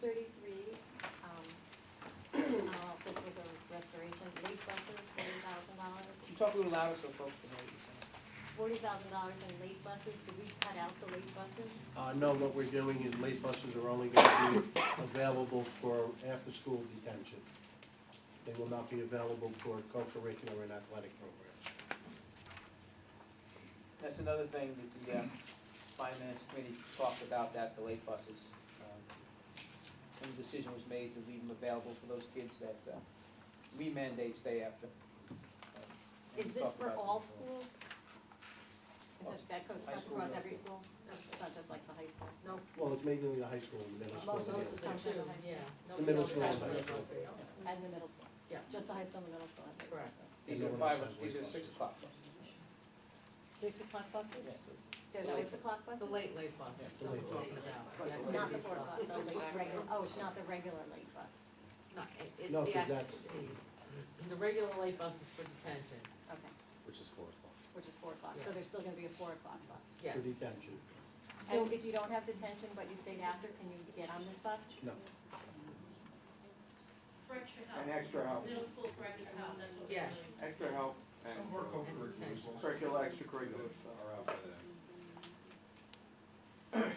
um, Talk a little louder so folks can hear you. forty thousand dollars in late buses, did we cut out the late buses? Uh, no, what we're doing is late buses are only gonna be available for after-school detention. They will not be available for co-curricular and athletic programs. That's another thing that the uh, finance committee talked about, that the late buses. um, And the decision was made to leave them available for those kids that uh, we mandate stay after. Um, Is and we this talked for about all that. schools? Is All it, that goes high cuts school, across middle every school? school. No, It's not just like the high school? No, Well, it's mainly the high school and middle school. most of the two, yeah. The middle Nobody else school has is one. And the middle school? Yeah. Just the high school and the middle school have late Correct. buses? These are Everyone five, else has these late are six buses. o'clock buses. Six o'clock buses? Yeah. There's The six late- o'clock buses? The late, late bus. Yeah, the That's late bus. what we're talking about. Yeah, Right. Not the late four bus. o'clock, the late regular, oh, it's not the regular late bus, No, it- it's No, the 'cause that's- activities. The regular late bus is for detention, okay, which is four o'clock. which is four o'clock, so Yeah. there's still gonna be a four o'clock bus. yeah. For detention, And if you don't have detention but you stayed after, can you get on this bus? no. For extra help. And extra help, Middle school for extra help, that's what we're Yes. doing. extra help and And detention. curricular, extracurricular stuff. Are out by then. And Uh,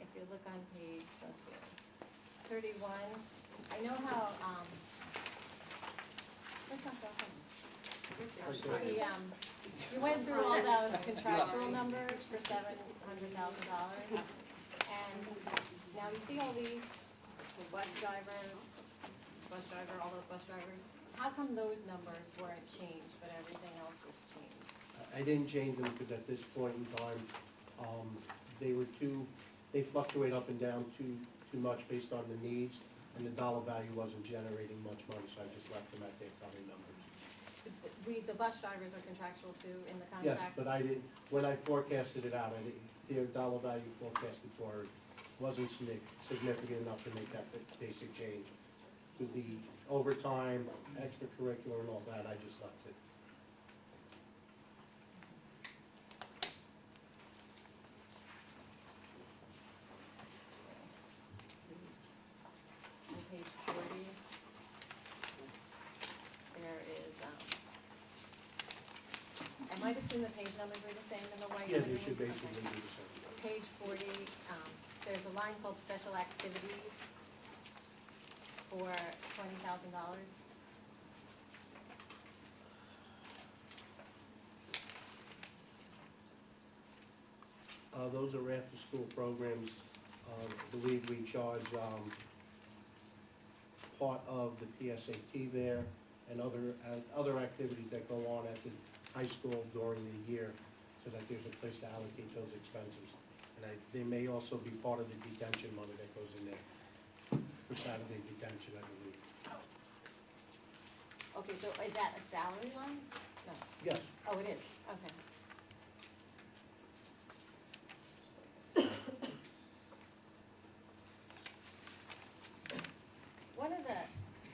if you look on page, let's see, thirty-one, I know how, um, that's not that one. The, um, you went through all those contractual numbers for seven hundred thousand dollars. And now you see all these, the bus drivers, bus driver, all those bus drivers. How come those numbers weren't changed, but everything else was changed? I I didn't change them because at this point in time, um, they were too, they fluctuate up and down too, too much based on the needs, and the dollar value wasn't generating much money, so I just left them at their current numbers. We, the bus drivers are contractual too in the Yes, contract. but I didn't, when I forecasted it out, I didn't, their dollar value forecasted for it wasn't signi- significant enough to make that ba- basic change. With the overtime, extracurricular and all that, I just left it. On page forty, there is, um, I might assume the page numbers are the same in the white. Yeah, and the they should green? basically Okay. do the same. Page forty, um, there's a line called special activities for twenty thousand dollars. Uh, those are after-school programs, uh, I believe we charge, um, part of the PSAT there and other, and other activities that go on at the high school during the year so that there's a place to allocate those expenses. And I, they may also be part of the detention money that goes in there for Saturday detention, I believe. Okay, so is that a salary line? No, Yes, oh, it is, okay. One of the,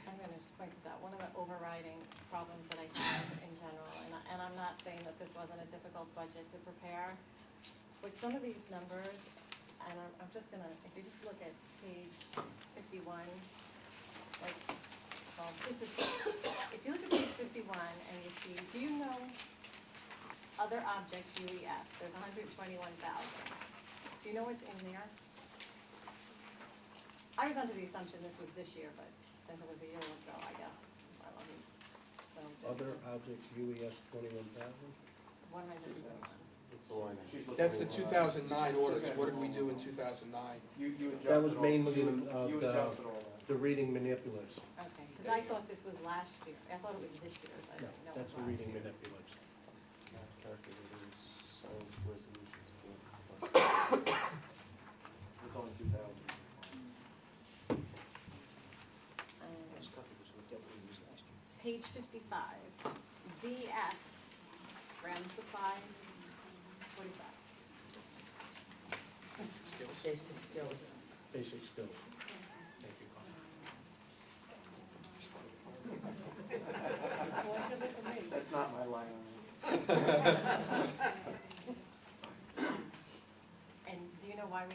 I'm gonna just point this out, one of the overriding problems that I have in general, and I, and I'm not saying that this wasn't a difficult budget to prepare, with some of these numbers, and I'm, I'm just gonna, if you just look at page fifty-one, like, well, this is, if you look at page fifty-one and you see, do you know other objects UES, there's hundred twenty-one thousand, do you know what's in there? I was under the assumption this was this year, but since it was a year ago, I guess, I don't know. So just other objects, UES twenty-one thousand. One hundred twenty-one. It's the line. She's looking That's the at two thousand nine orders, Okay. what did we do in two thousand nine? You, you adjusted all. That was mainly you- in, uh, You the- adjusted all that. The reading manipulatives, Okay, because I thought this was last year, I thought it was this year, so I no, didn't know it that's was the last reading year. manipulatives. Math calculators, science resolutions, board plus. It's only two thousand. Um, That's covered, which we definitely used last year. Page fifty-five, BS, ground supplies, what is that? Basic skills. Basic skills. Basic skills. Thank you, Carl. That's not my line. And do you know why we